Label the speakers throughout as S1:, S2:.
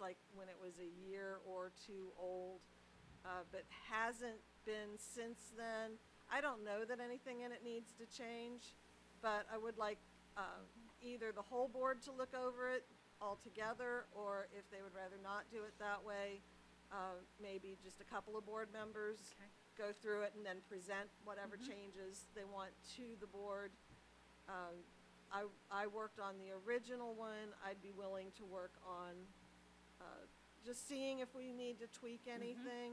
S1: like when it was a year or two old, uh, but hasn't been since then. I don't know that anything in it needs to change, but I would like, um, either the whole board to look over it altogether, or if they would rather not do it that way, uh, maybe just a couple of board members
S2: Okay.
S1: go through it and then present whatever changes they want to the board. Um, I, I worked on the original one, I'd be willing to work on, uh, just seeing if we need to tweak
S2: Mm-hmm.
S1: anything.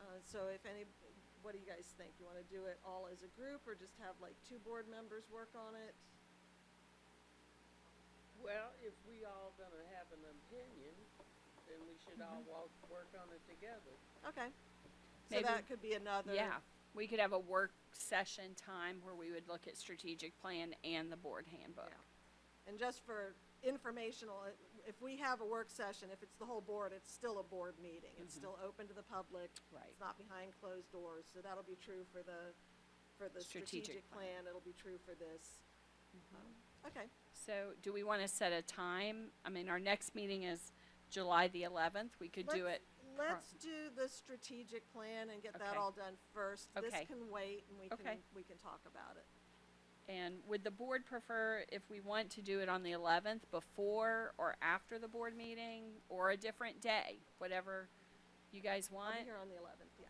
S1: Uh, so if any, what do you guys think? You wanna do it all as a group, or just have like two board members work on it?
S3: Well, if we all gonna have an opinion, then we should all
S1: Mm-hmm.
S3: walk, work on it together.
S1: Okay. So
S2: Maybe-
S1: that could be another.
S2: Yeah, we could have a work session time where we would look at strategic plan and the board handbook.
S1: And just for informational, i- if we have a work session, if it's the whole board, it's still a board meeting. It's still open to the public.
S2: Mm-hmm. Right.
S1: It's not behind closed doors, so that'll be true for the, for the
S2: Strategic
S1: strategic
S2: plan. Mm-hmm.
S1: plan. It'll be true for this. Um, Okay,
S2: So do we want to set a time? I mean, our next meeting is July the eleventh. We could do
S1: Let's-
S2: it. pro-
S1: let's do the strategic plan and get that
S2: Okay.
S1: all done first. This
S2: Okay.
S1: can wait and we
S2: Okay.
S1: can, we can talk about it.
S2: And would the board prefer if we want to do it on the eleventh before or after the board meeting or a different day? Whatever you guys
S1: I'll be
S2: want,
S1: here on the eleventh, yeah.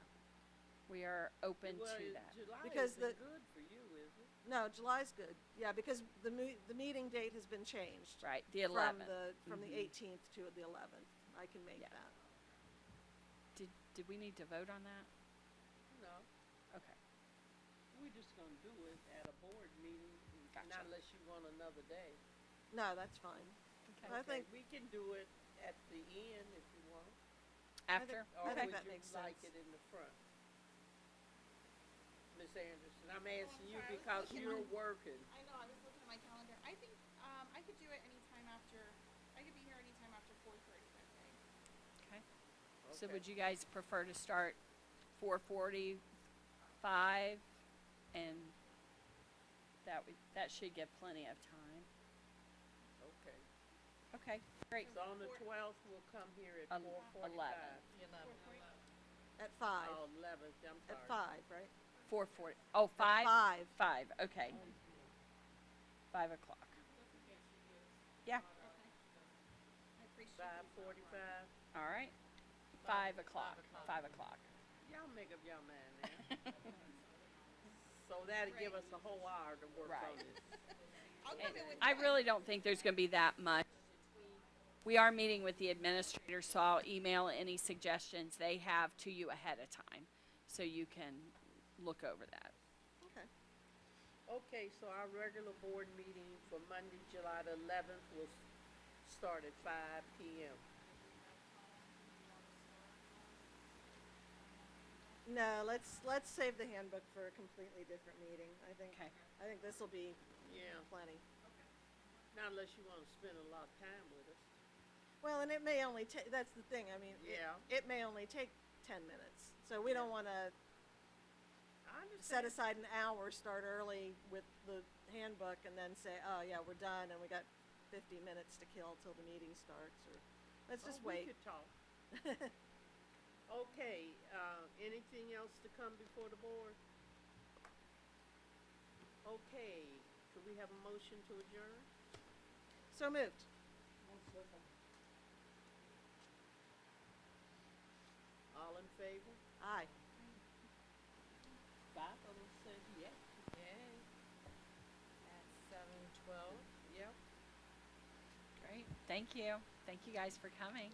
S2: we are open
S3: Well,
S2: to
S3: it-
S2: that.
S3: July
S1: Because the-
S3: isn't good for you, is it?
S1: No, July's good. Yeah, because the me- the meeting date has been changed.
S2: Right, the
S1: From
S2: eleventh.
S1: the, from the
S3: Mm-hmm.
S2: Mhm.
S1: eighteenth to the eleventh. I can make
S2: Yeah.
S1: that.
S2: Did, did we need to vote on that?
S3: No,
S2: Okay.
S3: we just gonna do it at a board meeting,
S2: Gotcha.
S3: not unless you want another day.
S1: No, that's fine. I
S3: Okay,
S1: think-
S3: we can do it at the end if you want,
S2: After?
S3: or
S1: think
S3: would
S1: that
S3: you
S1: makes
S3: like
S1: sense.
S3: it in the front? Miss Anderson, I'm asking you because you're working.
S4: I know, I was looking at my calendar. I think, um, I could do it anytime after, I could be here anytime after four thirty that day.
S2: Okay. So
S3: Okay.
S2: would you guys prefer to start four forty-five? And that would, that should give plenty of time.
S3: Okay,
S2: Okay, great.
S3: so on the twelfth, we'll come here at
S2: Um,
S3: four forty-five.
S2: 11.
S1: At five,
S3: Oh, eleventh, I'm sorry.
S1: at five, right?
S2: Four forty, oh,
S1: At
S2: five,
S1: Five.
S2: five, okay. Five o'clock. Yeah,
S4: Okay. I appreciate it.
S3: Five forty-five,
S2: all right. Five o'clock, five o'clock.
S3: y'all make up your mind now. So that'll give us a whole hour to work on
S2: Right.
S3: this.
S4: I'll
S2: And
S4: come in with.
S2: I
S4: mine.
S2: really don't think there's gonna be that much. We are meeting with the administrator, so I'll email any suggestions they have to you ahead of time, so you can look over that.
S1: Okay.
S3: Okay, so our regular board meeting for Monday, July the eleventh will s- start at five P M.
S1: No, let's, let's save the handbook for a completely different meeting. I think,
S2: Okay.
S1: I think this'll be
S3: Yeah,
S1: plenty.
S3: not unless you wanna spend a lot of time with us.
S1: Well, and it may only take, that's the thing, I mean, it,
S3: Yeah.
S1: it may only take ten minutes. So we don't wanna
S3: I
S1: set
S3: understand.
S1: aside an hour, start early with the handbook, and then say, oh, yeah, we're done, and we got fifty minutes to kill till the meeting starts, or, let's
S3: Oh,
S1: just
S3: we
S1: wait.
S3: could talk. Okay, uh, anything else to come before the board? Okay, could we have a motion to adjourn?
S1: So moved.
S3: All in favor?
S1: Aye.
S3: Five of them said yes. Yay. At seven twelve? Yep.
S2: Great, thank you. Thank you guys for coming.